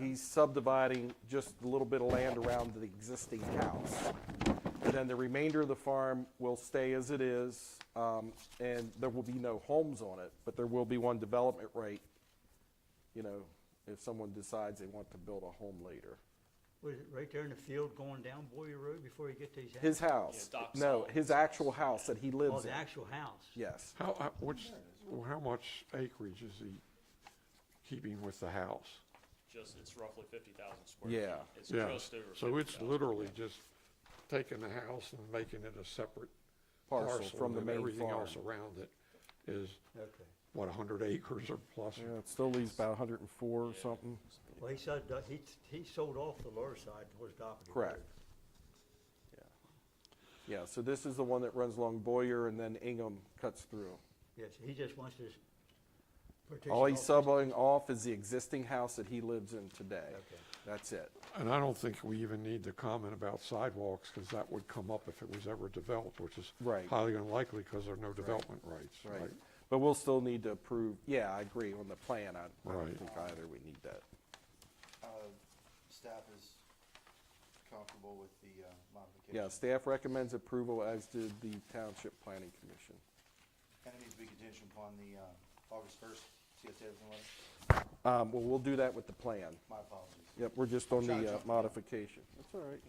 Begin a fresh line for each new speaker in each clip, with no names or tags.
he's subdividing just a little bit of land around the existing house. And then the remainder of the farm will stay as it is, um, and there will be no homes on it, but there will be one development rate, you know, if someone decides they want to build a home later.
Was it right there in the field going down Boyer Road before you get to his house?
His house,
Doc's
no,
house.
his actual house that he
Oh,
lives in,
the actual house?
yes.
How, how- what's, how much acreage is he keeping with the house?
just, it's roughly fifty thousand square.
Yeah.
feet. It's
Yeah,
just over
so it's
50,000.
literally just taking the house and making it a separate
Parcel
parcel.
from
and
the
then
main
Everything else
farm.
around it is,
Okay.
what, hundred acres or plus?
Yeah, it still leaves about hundred and four or something.
Well, he said, that he, he sold off the lower side towards Doppelgauer.
Correct. Yeah, so this is the one that runs along Boyer and then Ingham cuts through.
Yes, he just wants to s- partition
All
off.
he's subbing off is the existing house that he lives in today.
Okay.
That's it.
And I don't think we even need to comment about sidewalks, because that would come up if it was ever developed, which is
Right.
highly unlikely, because there are no development rights, right?
Right. But we'll still need to approve, yeah, I agree on the plan. I I don't
Right.
think either we need that.
Uh, Staff is comfortable with the uh, modification.
Yeah, staff recommends approval as did the Township Planning Commission.
And it needs to be contingent upon the uh, August 1st CSA open letter.
Um, well, we'll do that with the plan.
My apologies.
Yep, we're just on
Sorry,
the uh,
John.
modification. That's all right.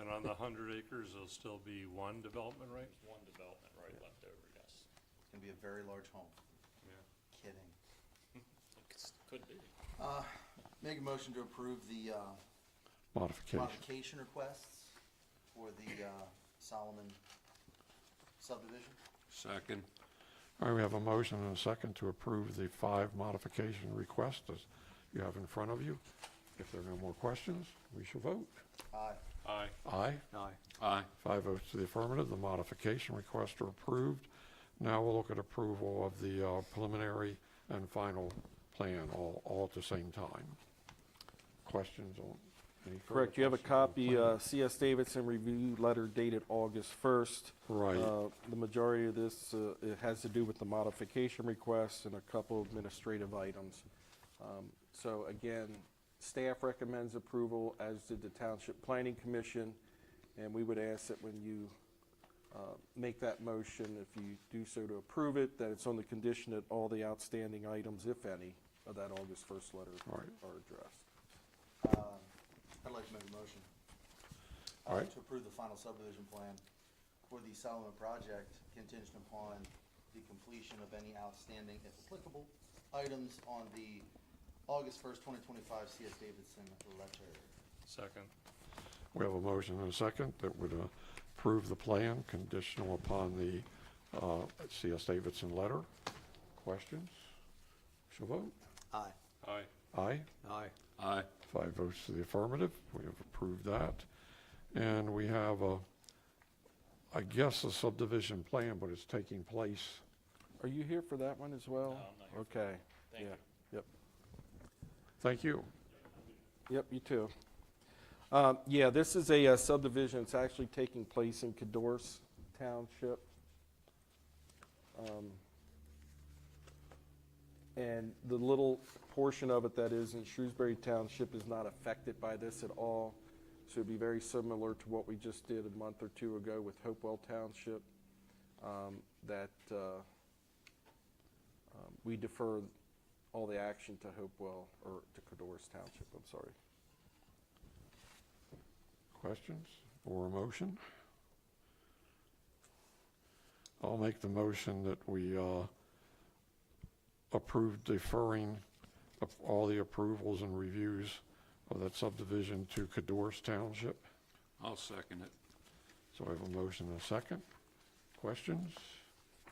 And on the hundred acres, there'll still be one development right?
There's One development right left over, yes.
It's going to be a very large home. Kidding.
It's- Could be.
Uh, Make a motion to approve the uh,
Modification.
modification requests for the uh, Solomon subdivision.
Second.
All right, we have a motion and a second to approve the five modification requests that you have in front of you. If there are no more questions, we shall vote.
Aye.
Aye.
Aye.
Aye.
Five votes to the affirmative, the modification requests are approved. Now we'll look at approval of the uh, preliminary and final plan, all, all at the same time. Questions on any further
Correct, you have a
questions on the
copy,
plan?
uh, CS Davidson review letter dated August first.
Right.
Uh, The majority of this, uh, it has to do with the modification requests and a couple administrative items. Um, So again, staff recommends approval, as did the Township Planning Commission, and we would ask that when you uh, make that motion, if you do so to approve it, that it's on the condition that all the outstanding items, if any, of that August first letter
All right.
are addressed.
Uh, I'd like to make a motion. uh,
All right.
To approve the final subdivision plan for the Solomon project contingent upon the completion of any outstanding, if applicable, items on the August first, twenty twenty-five C.S. Davidson letter.
Second.
We have a motion and a second that would uh, approve the plan conditional upon the uh, C.S. Davidson letter. Questions? Shall vote?
Aye.
Aye.
Aye.
Aye.
Aye.
Five votes to the affirmative. We have approved that. And we have, a, I guess, a subdivision plan, but it's taking place.
Are you here for that one as well?
No, I'm not here
Okay.
Thank
yeah.
you.
Yep,
Thank you.
yep, you too. Um, yeah, this is a uh, subdivision, it's actually taking place in Cadorce Township. Um, And the little portion of it that is in Shrewsbury Township is not affected by this at all. So it'd be very similar to what we just did a month or two ago with Hopewell Township, um, that, uh, Um, We defer all the action to Hopewell, or to Cadorus Township, I'm sorry.
Questions or a motion? I'll make the motion that we uh, approve deferring of all the approvals and reviews of that subdivision to Cadorus Township.
I'll second it.
So I have a motion and a second. Questions?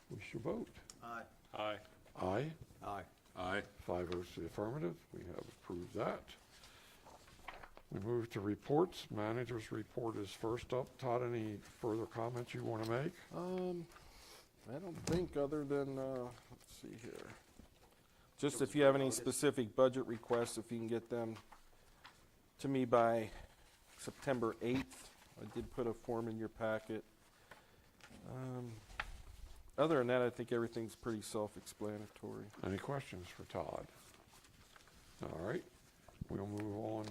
We shall vote.
Aye.
Aye.
Aye.
Aye.
Aye.
Five votes to the affirmative. We have approved that. We move to reports. Manager's report is first up. Todd, any further comments you want to make?
Um, I don't think, other than, uh, let's see here. Just if you have any specific budget requests, if you can get them to me by September 8th. I did put a form in your packet. Um, Other than that, I think everything's pretty self-explanatory.
Any questions for Todd? All right. We'll move on